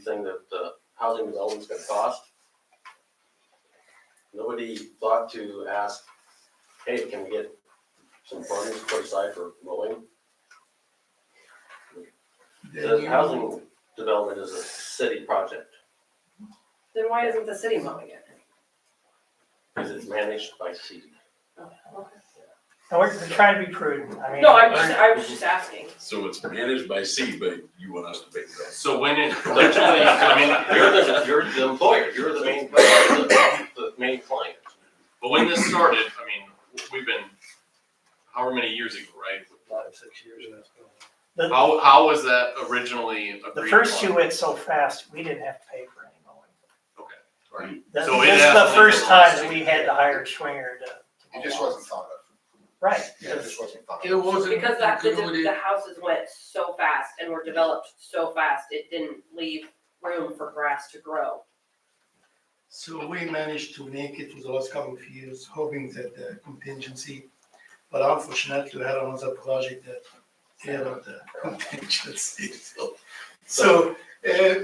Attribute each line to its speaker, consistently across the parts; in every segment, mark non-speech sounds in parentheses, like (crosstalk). Speaker 1: thing that the housing development's gonna cost. Nobody thought to ask, hey, can we get some funds put aside for mowing? The housing development is a city project,
Speaker 2: Then why isn't the city mowing it?
Speaker 1: because it's managed by city.
Speaker 3: No, we're we're trying to be prudent, I mean.
Speaker 2: No, I'm just, I was just asking.
Speaker 4: So it's managed by C, but you want us to pay that.
Speaker 5: So when it, literally, I mean,
Speaker 1: You're the, you're the employer, you're the main, the, the main client.
Speaker 5: but when this started, I mean, we've been, however many years ago, right?
Speaker 6: Five, six years and that's going on.
Speaker 3: The,
Speaker 5: How, how was that originally agreed
Speaker 3: the first two
Speaker 5: upon?
Speaker 3: went so fast, we didn't have to pay for any mowing.
Speaker 5: Right.
Speaker 3: This
Speaker 5: So it
Speaker 3: this is the
Speaker 5: actually
Speaker 3: first
Speaker 5: was-
Speaker 3: time we had to hire Schwinger to.
Speaker 7: It just wasn't thought of.
Speaker 3: Right,
Speaker 7: Yeah, it just wasn't thought
Speaker 8: It
Speaker 7: of.
Speaker 8: wasn't
Speaker 2: Because that, the,
Speaker 8: included.
Speaker 2: the houses went so fast and were developed so fast, it didn't leave room for grass to grow.
Speaker 8: So we managed to make it for the last couple of years, hoping that the contingency, but unfortunately, we had another project that had of the (laughs) contingency. So- So, uh,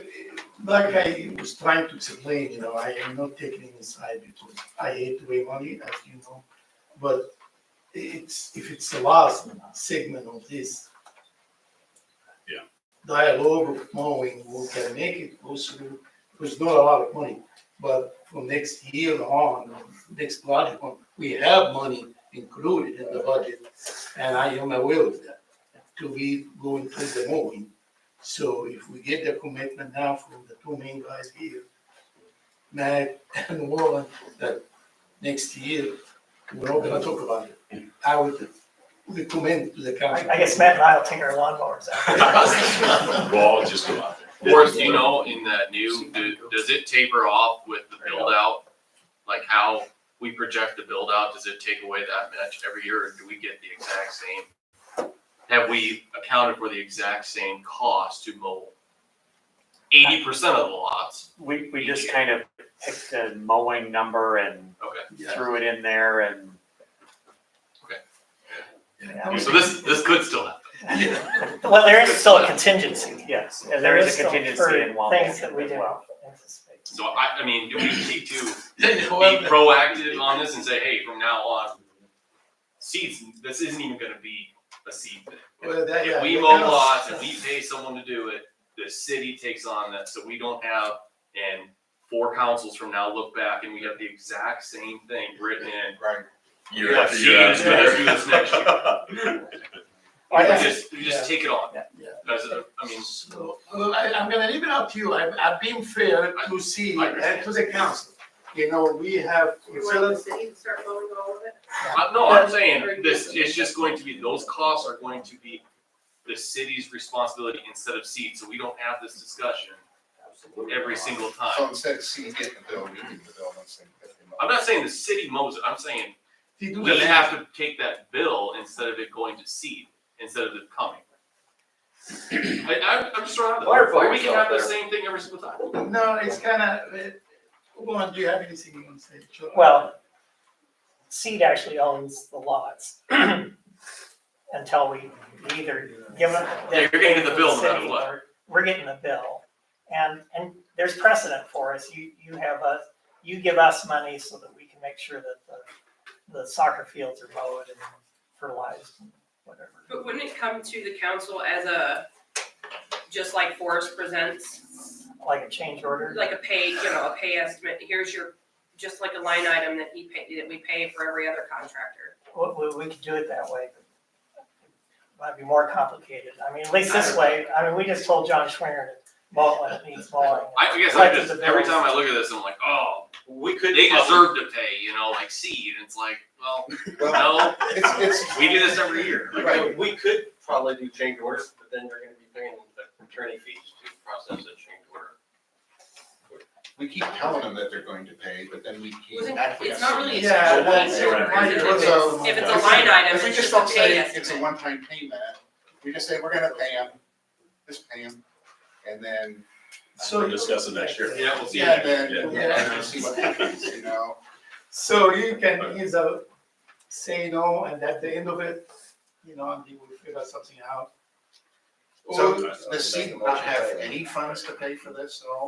Speaker 8: like I was trying to explain, you know, I am not taking any side because I hate to weigh money, as you know. But it's, if it's the last segment of this
Speaker 4: Yeah.
Speaker 8: dialogue of knowing who can make it possible, it was not a lot of money. But from next year on, next project, on, we have money included in the budget, and I am aware of that, to be going through the mowing. So if we get the commitment now from the two main guys here, Matt and Warren, that next year, we're not gonna talk about it. I would recommend to the
Speaker 3: I,
Speaker 8: council.
Speaker 3: I guess Matt and I will take our lawnmowers out.
Speaker 7: (laughs)
Speaker 4: Well, I'll just go out there.
Speaker 5: Or, do you know, in that new, do- does it taper off with the build out? Like how we project the build out, does it take away that much every year, or do we get the exact same? Have we accounted for the exact same cost to mow eighty percent of the lots?
Speaker 9: We, we just kind of picked a mowing number and
Speaker 5: Okay.
Speaker 9: threw it in there and.
Speaker 3: Yeah.
Speaker 5: So
Speaker 8: (laughs)
Speaker 5: this, this could still happen. (laughs)
Speaker 3: Well, there is still a contingency.
Speaker 9: Yes, and there is a
Speaker 3: still
Speaker 9: contingency
Speaker 3: for
Speaker 9: in Wampel
Speaker 3: Things that we
Speaker 9: as
Speaker 3: didn't
Speaker 9: well.
Speaker 3: anticipate.
Speaker 5: So I, I mean, do we need to
Speaker 8: Then
Speaker 5: be
Speaker 8: whoever-
Speaker 5: proactive on this and say, hey, from now on, seeds, this isn't even gonna be a seed thing.
Speaker 8: Well, that- yeah,
Speaker 5: If we
Speaker 8: that
Speaker 5: mow
Speaker 8: kind of-
Speaker 5: lots and we pay someone to do it, the city takes on that, so we don't have, and four councils from now look back and we have the exact same thing written in.
Speaker 7: Right.
Speaker 4: Year
Speaker 5: Yeah,
Speaker 4: after
Speaker 5: she
Speaker 4: year
Speaker 5: is
Speaker 4: after
Speaker 5: gonna
Speaker 4: year.
Speaker 5: do this next
Speaker 4: (laughs)
Speaker 5: You
Speaker 8: I-
Speaker 5: just, you just take it on,
Speaker 8: Yeah, yeah.
Speaker 5: as, a- I mean,
Speaker 8: So, uh, I, I'm gonna leave it up to you, I, I've been fair to see,
Speaker 5: I
Speaker 8: and to the council. You know, we have,
Speaker 2: You want the city to start mowing all of it?
Speaker 5: Uh, no, I'm saying, this, it's just going to be, those costs are going to be the city's responsibility instead of seed, so we don't have this discussion every single
Speaker 7: So
Speaker 5: time.
Speaker 7: instead of seeing it, the bill, we get the bill once they get the
Speaker 5: I'm not saying the city mows it, I'm saying
Speaker 8: they do.
Speaker 5: we have to take that bill instead of it going to seed, instead of it coming. I, I'm, I'm just trying to,
Speaker 1: Clarify
Speaker 5: or we can
Speaker 1: yourself
Speaker 5: have the
Speaker 1: there.
Speaker 5: same thing every single time.
Speaker 8: No, it's kinda, uh, Juan, do you have anything you wanna say? Sure.
Speaker 3: Well, Seed actually owns the lots (clears throat) until we either give them.
Speaker 5: Yeah, you're gonna get the bill no matter
Speaker 3: City
Speaker 5: what.
Speaker 3: or We're getting the bill. And, and there's precedent for us. You, you have us, you give us money so that we can make sure that the, the soccer fields are mowed and fertilized and whatever.
Speaker 2: But wouldn't it come to the council as a, just like Forest presents,
Speaker 3: Like a change order.
Speaker 2: like a pay, you know, a pay estimate, here's your, just like a line item that he paid, that we pay for every other contractor.
Speaker 3: We, we, we could do it that way, but it might be more complicated. I mean, at least this way, I mean, we just told John Schwinger to mow it when it needs mowing.
Speaker 5: I I guess I
Speaker 3: Like
Speaker 5: just,
Speaker 3: the
Speaker 5: every
Speaker 3: bills.
Speaker 5: time I look at this, I'm like, oh,
Speaker 1: We could.
Speaker 5: they deserve to pay, you know, like seed, it's like, well,
Speaker 7: Well,
Speaker 5: no,
Speaker 7: it's, (laughs) it's.
Speaker 5: we do this every year.
Speaker 1: Right, we could probably do change orders, but then you're gonna be paying the attorney fees to process a change order.
Speaker 7: We keep telling them that they're going to pay, but then we keep.
Speaker 2: Wasn't- It's not really a
Speaker 7: Yeah,
Speaker 2: special
Speaker 7: well,
Speaker 2: line
Speaker 7: it's-
Speaker 2: item,
Speaker 7: why
Speaker 2: because
Speaker 7: do
Speaker 2: if
Speaker 7: it
Speaker 2: it's,
Speaker 7: so-
Speaker 2: if it's a line item,
Speaker 7: If we
Speaker 2: it's
Speaker 7: just
Speaker 2: just a
Speaker 7: don't
Speaker 2: pay
Speaker 7: say it's a
Speaker 2: estimate.
Speaker 7: one-time payment, we just say we're gonna pay them, just pay them, and then.
Speaker 4: We'll discuss it next year.
Speaker 5: Yeah, we'll see.
Speaker 7: Yeah, then,
Speaker 4: Yeah.
Speaker 7: yeah, and see what happens, you know,
Speaker 8: So you can either say no, and at the end of it, you know, and they will figure something out.
Speaker 7: So does SEED not have any funds to pay for this at all?